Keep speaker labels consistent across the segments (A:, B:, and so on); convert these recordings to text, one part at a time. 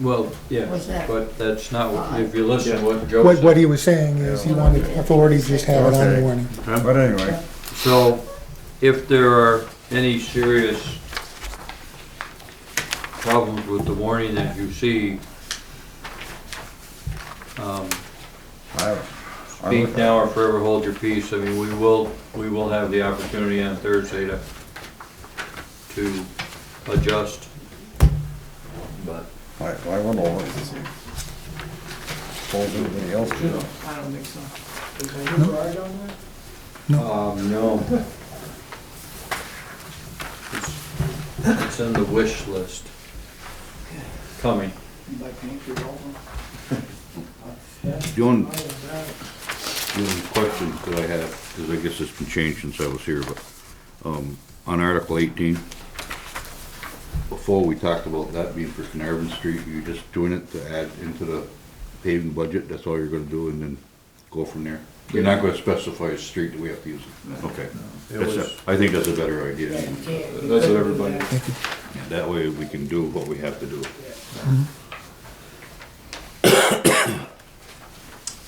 A: Well, yeah,
B: What's that?
A: but that's not, what- if you listen to what Joe
C: What, what
A: said.
C: he was saying is he wanted authorities just have it on the warning.
D: But anyway,
A: So if there are any serious problems with the warning that you see, um,
D: I, I,
A: speak now or forever hold your peace. I mean, we will, we will have the opportunity on Thursday to, to adjust. But
D: I, I went over it. Told everybody else to.
E: I don't think so. Is there a guard on there?
A: Um, no. It's it's in the wish list. Coming.
E: You'd like to make your roll?
F: The only,
E: Oh, is that-
F: the only question that I have, because I guess it's been changed since I was here, but, um, on Article eighteen, before we talked about that being for Carnarvon Street, you're just doing it to add into the paving budget, that's all you're gonna do, and then go from there? You're not gonna specify a street that we have to use? Okay.
A: It
F: That's
A: was-
F: a- I think that's a better idea.
A: That's what everybody.
F: That way we can do what we have to do.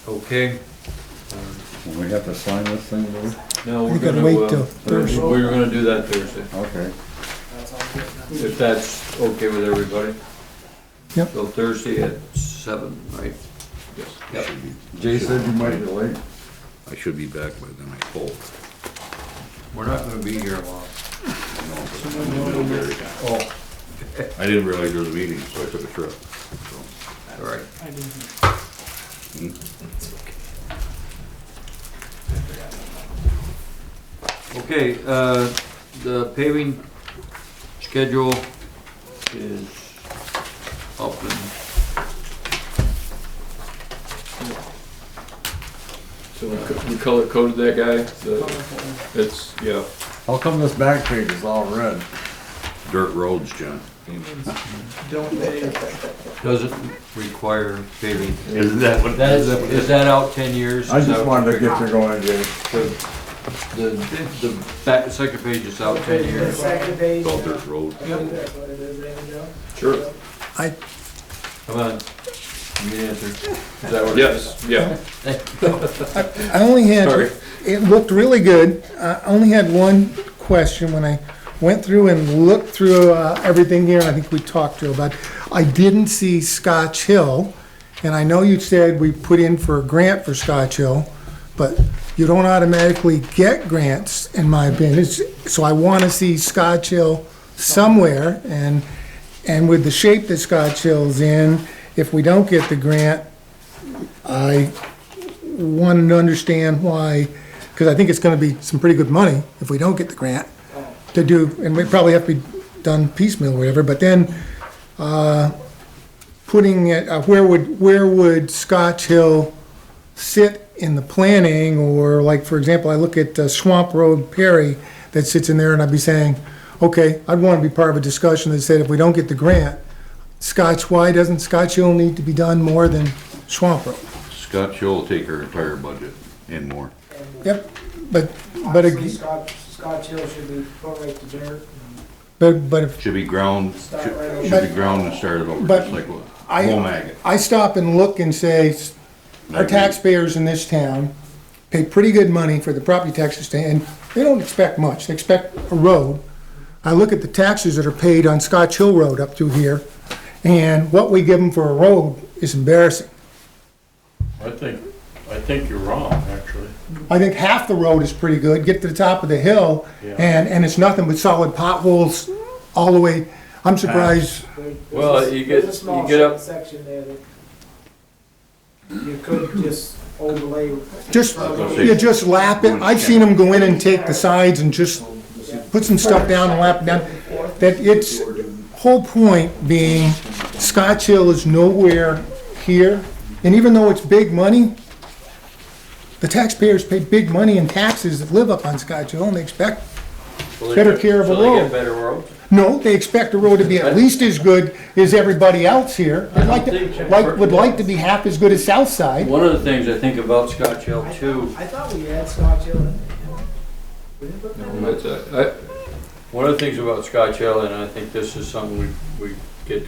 A: Okay,
D: Will we have to sign this thing, Lou?
A: no,
C: We
A: we're
C: gotta
A: gonna,
C: wait
A: uh,
C: till
A: we we're gonna do that Thursday,
D: Okay.
E: That's all good now.
A: if that's okay with everybody.
C: Yep.
A: So Thursday at seven, right?
F: Yes.
A: Yep.
D: Jay said you might be late.
F: I should be back by then, I hope.
A: We're not gonna be here long. Oh,
F: I didn't realize there was a meeting, so I took a trip, so.
A: all right. Hmm.
E: I didn't.
A: Okay, uh, the paving schedule is up and. So we co- we color coded that guy, the,
E: Colorful.
A: it's, yeah.
D: How come this back page is all red?
F: Dirt roads, John.
E: Don't they,
A: Doesn't require paving.
F: Isn't that what?
A: That is, is that out ten years?
D: I
A: Is
D: just
A: that-
D: wanted to get you going, Jay.
A: The, the back, second page is out ten
E: the
A: years.
E: second page,
F: Called
E: uh,
F: dirt road.
E: I think that's what it is, Randy, no?
A: Sure.
C: I-
A: Come on, give me an answer. Is that what it is?
G: Yes, yeah.
C: I only had,
G: Sorry.
C: it looked really good. I only had one question when I went through and looked through uh, everything here, I think we talked to about. I didn't see Scotch Hill, and I know you said we put in for a grant for Scotch Hill, but you don't automatically get grants, in my opinion. It's- So I want to see Scotch Hill somewhere, and, and with the shape that Scotch Hill's in, if we don't get the grant, I wanted to understand why, because I think it's gonna be some pretty good money if we don't get the grant to do, and we probably have to be done piecemeal or whatever, but then, uh, putting it, uh, where would, where would Scotch Hill sit in the planning, or like, for example, I look at uh, Swamp Road Perry that sits in there, and I'd be saying, okay, I'd wanna be part of a discussion that said, if we don't get the grant, Scotch, why doesn't Scotch Hill need to be done more than Swamp Road?
F: Scott Show will take her entire budget and more.
C: Yep, but, but,
E: Honestly,
C: ag-
E: Scotch, Scotch Hill should be put right to dirt and
C: but, but if,
F: Should be ground,
E: Start
F: should
E: right over.
F: should be ground and started over,
C: But-
F: just like what,
C: I-
F: whole maggot.
C: I stop and look and say, our taxpayers in this town pay pretty good money for the property taxes, to- and they don't expect much, they expect a road. I look at the taxes that are paid on Scotch Hill Road up through here, and what we give them for a road is embarrassing.
G: I think, I think you're wrong, actually.
C: I think half the road is pretty good, get to the top of the hill, and, and it's nothing but solid potholes all the way. I'm surprised,
E: there- there's
A: Well,
E: a-
A: you
E: there's
A: get-
E: a small
A: you get up-
E: Section there that you could just overlay.
C: just,
F: Let's see.
C: you just lap it, I've seen them go in and take the sides and just put some stuff down and lap it down. That it's, whole point being, Scotch Hill is nowhere here, and even though it's big money, the taxpayers pay big money in taxes that live up on Scotch Hill, and they expect,
A: Well, they
C: Better
A: get-
C: care of a
A: so they get
C: road.
A: Better roads?
C: no, they expect the road to be at least as good as everybody else here. They'd like to, like, would like to be half as good as Southside.
A: One of the things I think about Scotch Hill
E: I thought-
A: too,
E: I thought we had Scotch Hill in there. We didn't put that in?
A: is, uh, I- one of the things about Scotch Hill, and I think this is something we, we